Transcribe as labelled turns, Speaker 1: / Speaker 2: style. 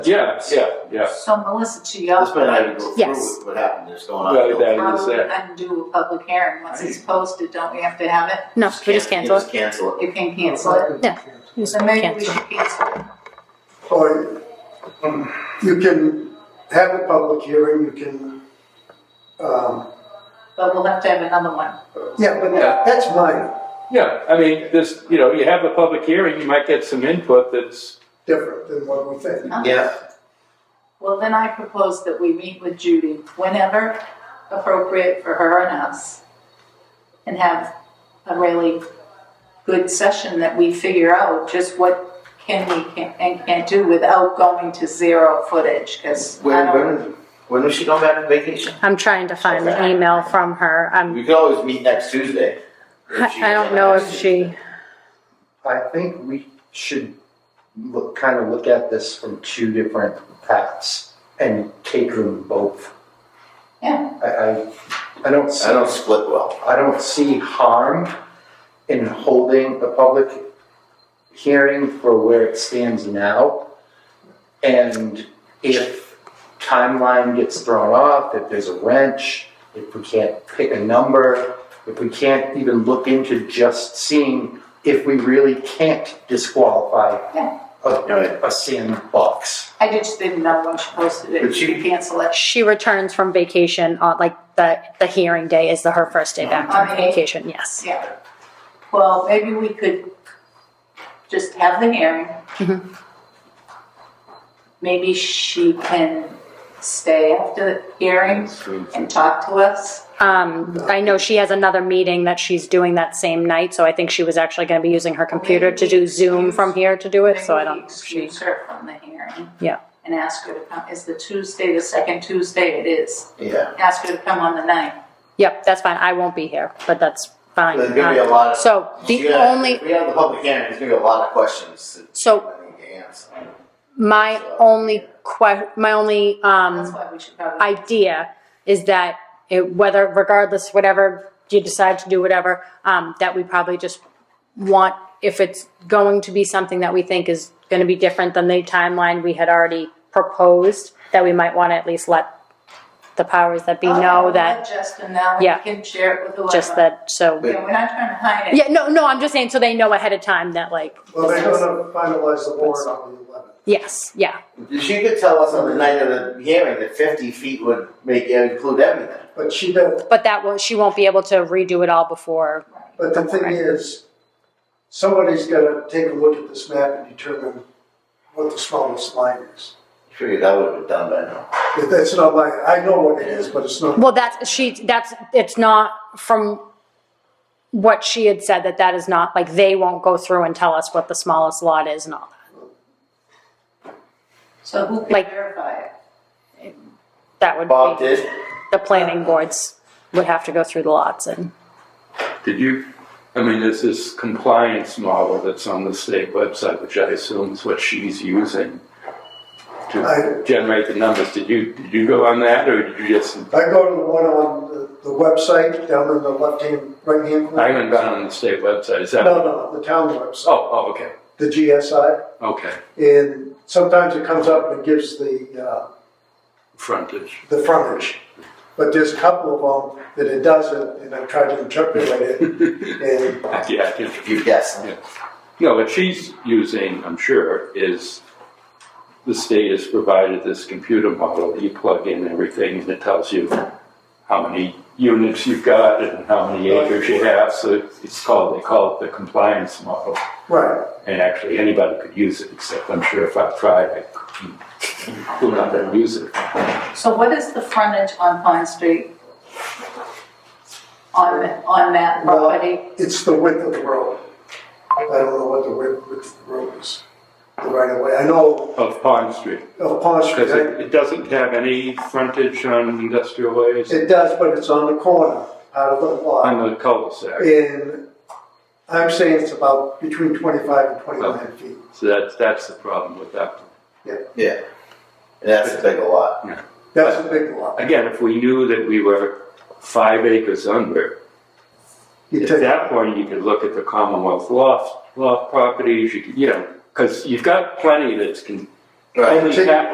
Speaker 1: Yeah, yeah, yeah.
Speaker 2: So Melissa, to your
Speaker 3: This might not even go through
Speaker 4: Yes.
Speaker 3: with what happened, that's going on.
Speaker 1: Well, that
Speaker 2: how
Speaker 1: is
Speaker 2: do we
Speaker 5: Um,
Speaker 1: that.
Speaker 2: undo a public hearing? Once it's posted, don't we have to have it?
Speaker 4: No, we just
Speaker 3: can't-
Speaker 4: cancel
Speaker 3: you
Speaker 4: it.
Speaker 3: Just cancel it.
Speaker 2: You can cancel it.
Speaker 4: We just
Speaker 2: So maybe we
Speaker 4: cancel.
Speaker 2: should cancel it.
Speaker 5: Or um, you can have a public hearing, you can, um,
Speaker 2: But we'll have to have another one.
Speaker 5: yeah, but
Speaker 1: Yeah.
Speaker 5: that's minor,
Speaker 1: Yeah, I mean, this, you know, you have a public hearing, you might get some input that's,
Speaker 5: different than what we think.
Speaker 2: Huh?
Speaker 3: Yeah,
Speaker 2: Well, then I propose that we meet with Judy whenever appropriate for her and us and have a really good session that we figure out just what can we can, and can't do without going to zero footage, because I
Speaker 3: when, when,
Speaker 2: don't,
Speaker 3: when was she going back on vacation?
Speaker 4: I'm trying to find the email from her. I'm,
Speaker 3: We could always meet next Tuesday. if she-
Speaker 4: I I don't know if she,
Speaker 6: I think we should look, kind of look at this from two different paths and take them both.
Speaker 2: yeah,
Speaker 6: I, I, I don't, see-
Speaker 3: I don't split well.
Speaker 6: I don't see harm in holding a public hearing for where it stands now. And if timeline gets thrown off, if there's a wrench, if we can't pick a number, if we can't even look into just seeing if we really can't disqualify
Speaker 2: Yeah.
Speaker 6: a, a sandbox.
Speaker 2: I just didn't know when she posted it,
Speaker 3: But
Speaker 2: she
Speaker 3: you-
Speaker 2: could cancel it.
Speaker 4: she returns from vacation on like the, the hearing day is the, her first day back
Speaker 2: On
Speaker 4: from
Speaker 2: the eighth?
Speaker 4: vacation, yes.
Speaker 2: Yeah. Well, maybe we could just have the hearing.
Speaker 4: Mm-hmm.
Speaker 2: Maybe she can stay after the hearing and talk to us.
Speaker 4: Um, I know she has another meeting that she's doing that same night, so I think she was actually gonna be using her computer to do Zoom from here to do it, so I
Speaker 2: Maybe we
Speaker 4: don't, she,
Speaker 2: Excuse her from the hearing.
Speaker 4: Yeah.
Speaker 2: And ask her to come, is the Tuesday, the second Tuesday it is.
Speaker 3: Yeah,
Speaker 2: Ask her to come on the ninth.
Speaker 4: yep, that's fine. I won't be here, but that's fine.
Speaker 3: there's gonna be a lot of.
Speaker 4: So
Speaker 3: She's
Speaker 4: the
Speaker 3: gonna-
Speaker 4: only,
Speaker 3: If we have the public hearing, there's gonna be a lot of questions. that
Speaker 4: So-
Speaker 3: we need to answer.
Speaker 4: my only que, my only, um.
Speaker 2: That's why we should probably.
Speaker 4: idea is that it, whether regardless whatever you decide to do whatever um, that we probably just want if it's going to be something that we think is going to be different than the timeline we had already proposed that we might want to at least let the powers that be
Speaker 2: I'll
Speaker 4: know
Speaker 2: let
Speaker 4: that
Speaker 2: Oh, Justin know, and
Speaker 4: Yeah.
Speaker 2: we can share it with whoever.
Speaker 4: just that so
Speaker 2: Yeah, we're not trying to hide it.
Speaker 4: yeah no no i'm just saying so they know ahead of time that like
Speaker 5: Well,
Speaker 4: this
Speaker 5: they're
Speaker 4: is-
Speaker 5: gonna finalize the warrant on the eleventh.
Speaker 4: yes yeah
Speaker 3: She could tell us on the night of the hearing that fifty feet would make, uh, include everything.
Speaker 5: But she don't,
Speaker 4: but that will she won't be able to redo it all before
Speaker 5: but the thing is, somebody's gonna take a look at this map and determine what the smallest line is.
Speaker 3: Figured that would've been done by now.
Speaker 5: If That's not my, I know what it is, but it's not,
Speaker 4: Well, that's she. That's it's not from what she had said that that is not like they won't go through and tell us what the smallest lot is and all that.
Speaker 2: So who can
Speaker 4: Like-
Speaker 2: verify it?
Speaker 4: That would
Speaker 3: Bob
Speaker 4: be
Speaker 3: did.
Speaker 4: the planning boards would have to go through the lots and
Speaker 1: did you, I mean, there's this compliance model that's on the state website, which I assume is what she's using to
Speaker 5: I-
Speaker 1: generate the numbers. Did you, did you go on that or did you just,
Speaker 5: I go to the one on the, the website down in the left-hand, right-hand corner.
Speaker 1: I haven't gone on the state website, is that? Oh,
Speaker 5: No, no, the town website,
Speaker 1: oh, okay,
Speaker 5: the GSI.
Speaker 1: okay,
Speaker 5: And sometimes it comes up and it gives the, uh,
Speaker 1: frontage.
Speaker 5: the frontage. But there's a couple of them that it doesn't, and I tried to interpolate it, and
Speaker 1: Yeah, I think-
Speaker 3: You guessed.
Speaker 1: No, what she's using, I'm sure, is the state has provided this computer model. You plug in everything and it tells you how many units you've got and how many acres you have. So it's called, they call it the compliance model.
Speaker 5: right,
Speaker 1: And actually, anybody could use it, except I'm sure if I tried, I couldn't, could not gonna use it.
Speaker 2: So what is the frontage on Pine Street? On, on that
Speaker 5: Well-
Speaker 2: property?
Speaker 5: it's the width of the road. I don't know what the width, width of the road is, the right of way. I know
Speaker 1: Of Pond Street,
Speaker 5: of Pond Street,
Speaker 1: because it,
Speaker 5: I-
Speaker 1: it doesn't have any frontage on industrial ways
Speaker 5: it does, but it's on the corner, out of the lot.
Speaker 1: on the cul-de-sac.
Speaker 5: And I'm saying it's about between twenty-five and twenty-nine feet.
Speaker 1: So that's, that's the problem with that.
Speaker 3: Yeah. And that's a big lot.
Speaker 5: That's a big lot.
Speaker 1: Again, if we knew that we were five acres under,
Speaker 5: You
Speaker 1: at
Speaker 5: take-
Speaker 1: that point, you could look at the Commonwealth loft, loft properties, you could, you know, because you've got plenty that's can,
Speaker 3: Right.
Speaker 1: only
Speaker 5: Take-
Speaker 1: cap